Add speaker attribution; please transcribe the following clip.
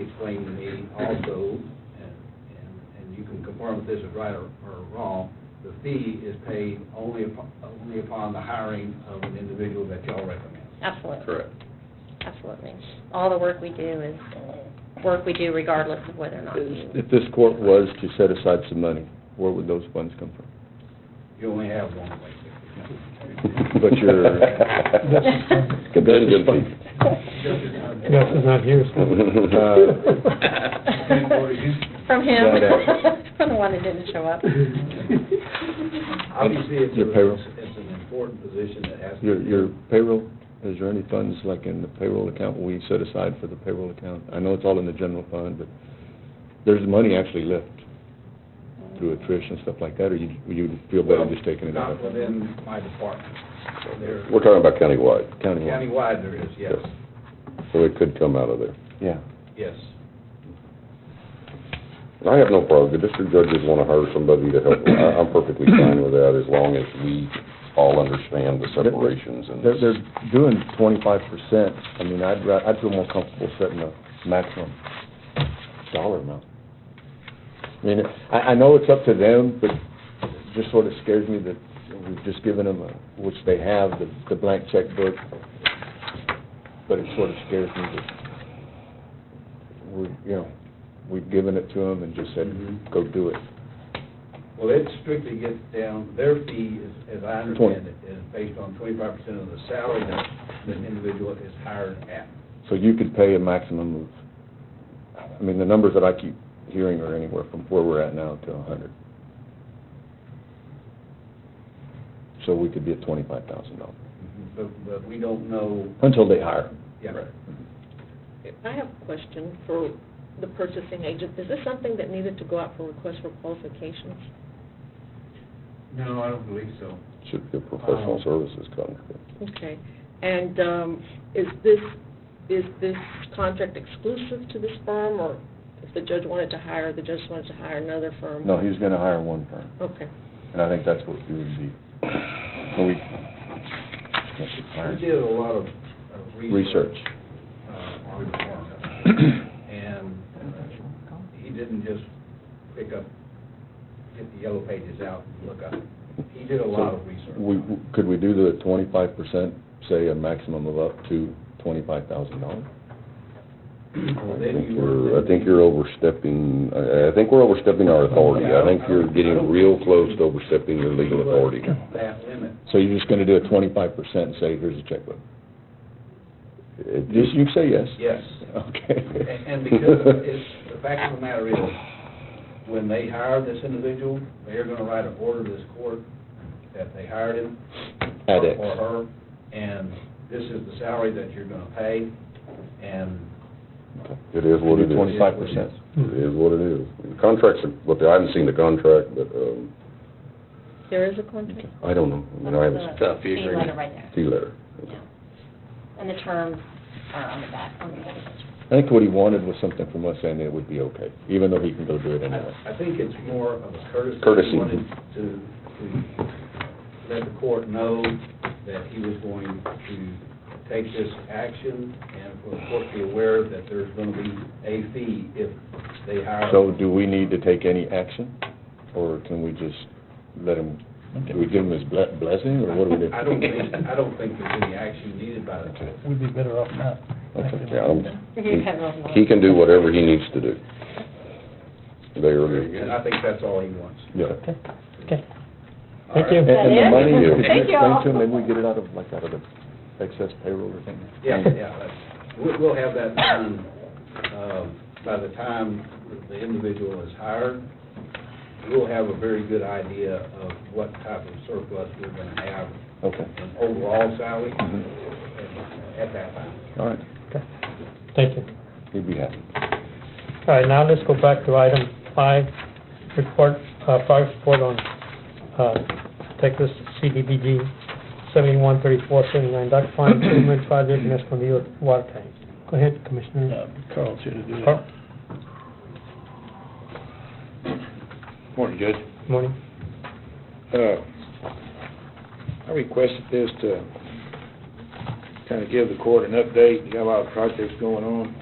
Speaker 1: explained to me also, and, and- and you can confirm if this is right or, or wrong, the fee is paid only upon, only upon the hiring of an individual that y'all recommend.
Speaker 2: Absolutely,
Speaker 3: Correct.
Speaker 2: absolutely. All the work we do is uh, work we do regardless of whether or not you,
Speaker 3: If this court was to set aside some money, where would those funds come from?
Speaker 1: You only have one way.
Speaker 3: But your competitive fee.
Speaker 4: Gus is not here, so.
Speaker 3: Uh,
Speaker 2: from him,
Speaker 3: That,
Speaker 2: from the one that didn't show up.
Speaker 1: Obviously, it's,
Speaker 3: Your payroll.
Speaker 1: a- it's an important position that has to.
Speaker 3: Your, your payroll, is there any funds like in the payroll account we set aside for the payroll account? I know it's all in the general fund, but there's money actually left through attrition and stuff like that, or you, you feel better just taking it out
Speaker 1: Not
Speaker 3: of
Speaker 1: within my department. So there,
Speaker 5: We're talking about countywide,
Speaker 3: county?
Speaker 1: countywide there is, yes,
Speaker 5: so it could come out of there.
Speaker 3: Yeah.
Speaker 1: yes.
Speaker 5: And I have no problem, the district judges want to hire somebody to help, I- I'm perfectly fine with that, as long as we all understand the separations and
Speaker 3: They're, they're doing twenty-five percent. I mean, I'd, ra- I'd feel more comfortable setting a maximum dollar amount. I mean, I, I know it's up to them, but it just sort of scares me that we've just given them, a- which they have, the, the blank checkbook. But it sort of scares me that we, you know, we've given it to them and just said,
Speaker 1: Mhm.
Speaker 3: go do it.
Speaker 1: Well, it strictly gets down, their fee is, as I understand it, is based on twenty-five percent of the salary that the individual is hired at.
Speaker 3: So you could pay a maximum of, I mean, the numbers that I keep hearing are anywhere from where we're at now to a hundred. So we could be at twenty-five thousand dollars,
Speaker 1: But, but we don't know,
Speaker 3: until they hire.
Speaker 1: yeah.
Speaker 6: I have a question for the purchasing agent. Is this something that needed to go out for request for qualifications?
Speaker 1: No, I don't believe so.
Speaker 5: should be a professional services contract.
Speaker 6: Okay. And um, is this, is this contract exclusive to this firm, or if the judge wanted to hire, the judge wanted to hire another firm?
Speaker 3: No, he's gonna hire one firm,
Speaker 6: Okay.
Speaker 3: and I think that's what we would be, so we. we should hire.
Speaker 1: We did a lot of of research.
Speaker 3: Research.
Speaker 1: uh, on the farm. And uh, he didn't just pick up, get the yellow pages out and look up. He did a lot of research.
Speaker 3: We, could we do the twenty-five percent, say a maximum of up to twenty-five thousand dollars?
Speaker 1: Well,
Speaker 5: I
Speaker 1: then
Speaker 5: think
Speaker 1: you
Speaker 5: you're,
Speaker 1: were-
Speaker 5: I think you're overstepping, I, I think we're overstepping our authority. I think you're getting real close to overstepping your legal authority.
Speaker 1: That limit.
Speaker 3: So you're just gonna do a twenty-five percent and say, here's a checkbook?
Speaker 5: It-
Speaker 3: Just, you say yes?
Speaker 1: Yes. And
Speaker 3: Okay.
Speaker 1: and because it's, the fact of the matter is, when they hire this individual, they're gonna write an order to this court that they hired him.
Speaker 3: At X.
Speaker 1: Or her, and this is the salary that you're gonna pay, and
Speaker 5: It is what it is.
Speaker 3: Twenty-five percent.
Speaker 5: It is what it is. The Contracts are, what they, I haven't seen the contract, but, um,
Speaker 6: There is a contract?
Speaker 5: I don't know. I mean, I haven't,
Speaker 3: Tough,
Speaker 2: Fee letter right there,
Speaker 5: see letter.
Speaker 2: yeah. And the terms are on the back, on the back.
Speaker 3: I think what he wanted was something from us saying that it would be okay, even though he can go do it anyway.
Speaker 1: I I think it's more of a courtesy.
Speaker 5: Courtesy.
Speaker 1: He wanted to, to let the court know that he was going to take this action, and for the court to be aware that there's gonna be a fee if they hire.
Speaker 3: So do we need to take any action, or can we just let him, do we give him his ble- blessing, or what do we do?
Speaker 1: I don't think, I don't think there's any action needed by the court.
Speaker 4: We'd be better off not.
Speaker 3: Okay.
Speaker 5: Yeah, I'm-
Speaker 2: You have a lot.
Speaker 5: He can do whatever he needs to do. They are,
Speaker 1: And I think that's all he wants.
Speaker 5: yeah.
Speaker 4: Okay.
Speaker 1: All
Speaker 4: Thank
Speaker 1: right.
Speaker 4: you.
Speaker 3: And and the money,
Speaker 5: Thank you.
Speaker 3: can you
Speaker 2: Thank you
Speaker 3: explain
Speaker 2: all.
Speaker 3: to him, maybe we get it out of, like, out of the excess payroll or something?
Speaker 1: Yeah, yeah, that's- we'll, we'll have that done, um, by the time the individual is hired. We'll have a very good idea of what type of surplus we're gonna have
Speaker 3: Okay,
Speaker 1: in overall salary
Speaker 3: Mhm.
Speaker 1: at that time.
Speaker 3: all right,
Speaker 4: Thank you.
Speaker 3: he'd be happy.
Speaker 4: All right, now let's go back to item five, report, uh, five report on, uh, Texas CDBG seventy-one thirty-four seventy-nine, Dock Farm Improvement Project, Escondido Water Tank. Go ahead, Commissioner.
Speaker 7: Carl's here to do that.
Speaker 4: Carl,
Speaker 7: Morning, Judge.
Speaker 4: good morning.
Speaker 7: Uh, I requested this to kind of give the court an update. We got a lot of projects going on.